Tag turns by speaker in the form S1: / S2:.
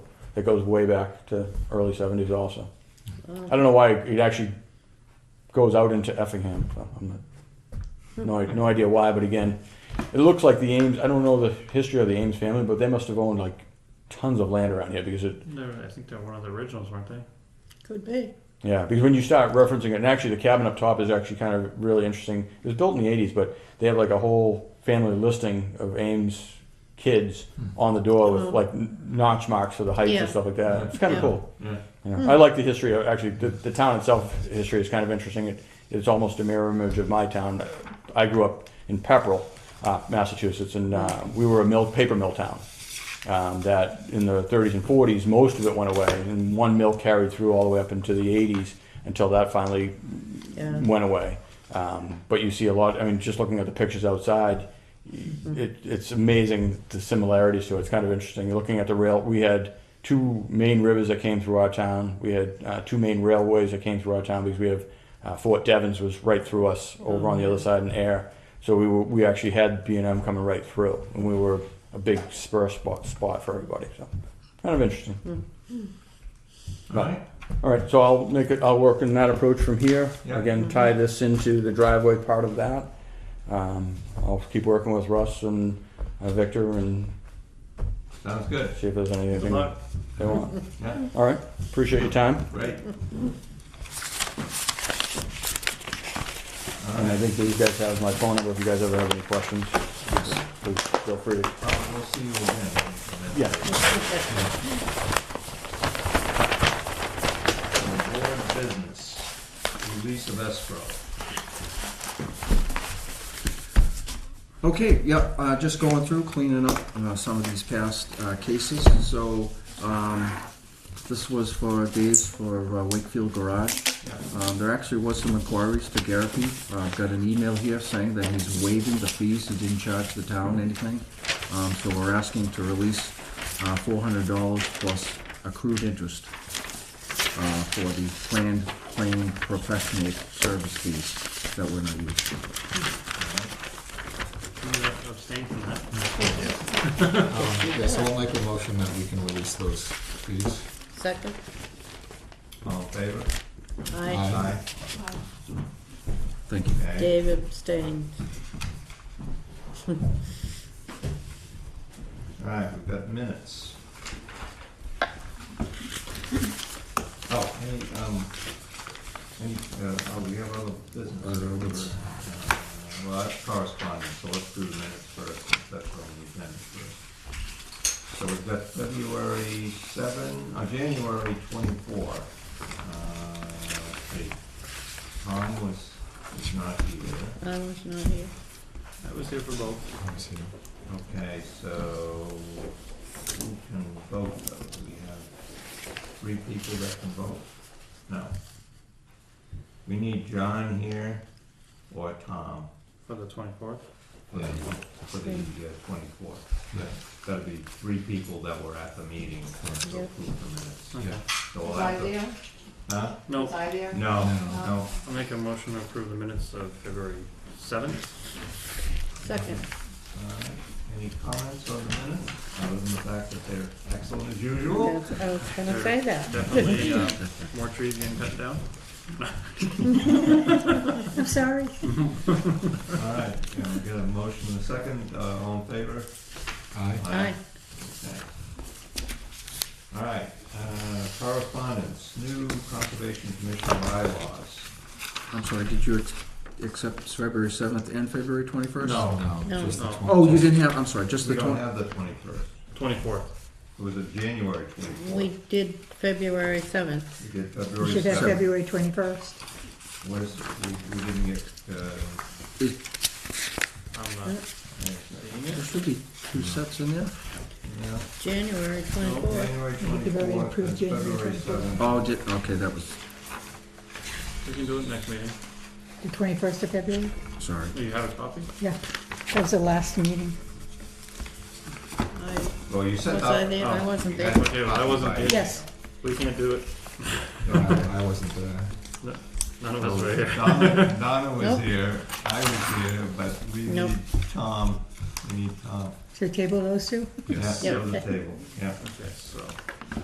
S1: that goes way back to early 70s also. I don't know why it actually goes out into Effingham. so I'm not, no, i- no idea why, but again, it looks like the Ames, I don't know the history of the Ames family, but they must have owned like tons of land around here because it
S2: No, I think they're one of the originals, weren't they?
S3: Could be.
S1: Yeah, because when you start referencing it, and actually the cabin up top is actually kind of really interesting. It was built in the '80s, but they have like a whole family listing of Ames kids on the door with
S3: Oh.
S1: like n- notch marks for the heights
S3: Yeah.
S1: and stuff like that. It's kind of
S3: Yeah.
S1: cool.
S2: Yeah.
S1: Yeah.
S3: Hmm.
S1: I like the history. Of, actually, the, the town itself history is kind of interesting. It, it's almost a mirror image of my town. I grew up in Pepperell, uh, Massachusetts, and uh, we were a mill paper mill town um, that in the 30s and 40s, most of it went away, and one mill carried through all the way up into the 80s until that finally
S3: Yeah.
S1: went away. Um, but you see a lot. I mean, just looking at the pictures outside, it, it's amazing the similarities to it. It's kind of interesting. You're looking at the rail. We had two main rivers that came through our town. We had uh, two main railways that came through our town because we have uh, Fort Devens was right through us over on the other side in air. So we were, we actually had B and M coming right through, and we were a big spur spot spot for everybody. So kind of interesting.
S4: All right.
S1: All right, so I'll make it, I'll work in that approach from here.
S4: Yeah. Mm-hmm.
S1: Again, tie this into the driveway part of that. Um, I'll keep working with Russ and uh, Victor and
S4: Sounds good.
S1: see if there's
S2: Good
S1: anything
S2: luck.
S1: they want.
S4: Yeah.
S1: All right, appreciate your time.
S4: Great. All
S1: And I
S4: right.
S1: think these guys have my phone number if you guys ever have any questions. Please feel free to,
S4: Well, we'll see you again.
S1: yeah.
S4: Board business, release of escrow.
S5: Okay, yeah, uh, just going through, cleaning up, uh, some of these past, uh, cases, so, um, this was for Dave's for uh, Wakefield Garage. Um, there actually was some inquiries to Garapi, uh, got an email here saying that he's waiving the fees, he didn't charge the town anything. Um, so we're asking to release, uh, four hundred dollars plus accrued interest, uh, for the planned, planned professional service fees that we're not using.
S2: You abstained from that.
S6: Yeah, so I'll make a motion that we can release those fees.
S3: Second?
S4: All in favor?
S3: Aye.
S5: Thank you.
S4: Okay.
S3: Dave abstained.
S4: All right, we've got minutes. Oh, any, um, any, uh, oh, we have other
S5: Other minutes.
S4: business. Uh, Well, that's correspondence, so let's do the minutes first, since that's what we need minutes first. So we've got February seven, uh, January twenty-four. Uh, let's see. Tom was, is not here.
S3: I was not here.
S2: I was here for both.
S6: Let me see.
S4: Okay, so who can vote though? Do we have three people that can vote? No. We need John here or Tom
S2: For the twenty-fourth?
S4: for the, for the twenty-fourth. That'd be three people that were at the meeting to
S3: Yeah.
S4: approve the minutes.
S2: Okay.
S4: So we'll
S7: Was I
S4: have to-
S7: there?
S4: Huh?
S2: No,
S7: Was I there?
S4: No,
S6: No.
S4: no.
S2: I'll make a motion to approve the minutes of February seventh.
S3: Second.
S4: All right. Any comments on the minutes, other than the fact that they're excellent as usual?
S3: That's- I was gonna say that.
S2: Definitely, uh, more trees getting cut down.
S3: I'm sorry.
S4: All right, can we get a motion in a second, uh, all in favor?
S6: Aye.
S3: Aye.
S4: Okay. All right, uh, correspondence, new conservation commission bylaws.
S5: I'm sorry, did you ex- accept February 7th and February 21st?
S3: No.
S6: No, just the
S2: No.
S5: Oh, you
S6: 21st.
S5: didn't have, I'm sorry, just
S4: We
S5: the
S4: don't
S5: 20.
S4: have the twenty-first,
S2: Twenty-fourth.
S4: it was a January twenty-fourth.
S3: We did February seventh.
S4: We did
S8: You
S4: February
S8: should have
S4: seventh.
S8: February 21st.
S4: Where's, we, we didn't get, uh,
S2: I'm, uh, seeing it.
S5: There should be two sets in there.
S4: yeah,
S3: January
S4: no,
S3: twenty-fourth.
S4: January
S8: You've already
S4: twenty-fourth
S8: approved
S4: and
S8: January
S4: February
S8: 24th.
S4: seventh.
S5: Oh, did, okay, that was,
S2: We can do it next meeting.
S8: The 21st of February?
S5: sorry.
S2: Do you have a copy?
S8: Yeah. That was the last meeting.
S3: I
S4: Well, you said uh,
S3: Was
S4: that.
S3: I there? I wasn't there.
S2: Okay, well, I wasn't there.
S8: Yes.
S2: We can't do it.
S6: No, I wasn't there.
S2: None of us were here.
S4: Donna, Donna was
S3: Nope.
S4: here, I was here, but we
S3: Nope.
S4: need Tom, we need Tom.
S8: So table those two?
S6: Yes.
S4: Yeah,
S3: Yep.
S4: on the table, yeah. uh,
S2: Okay, so.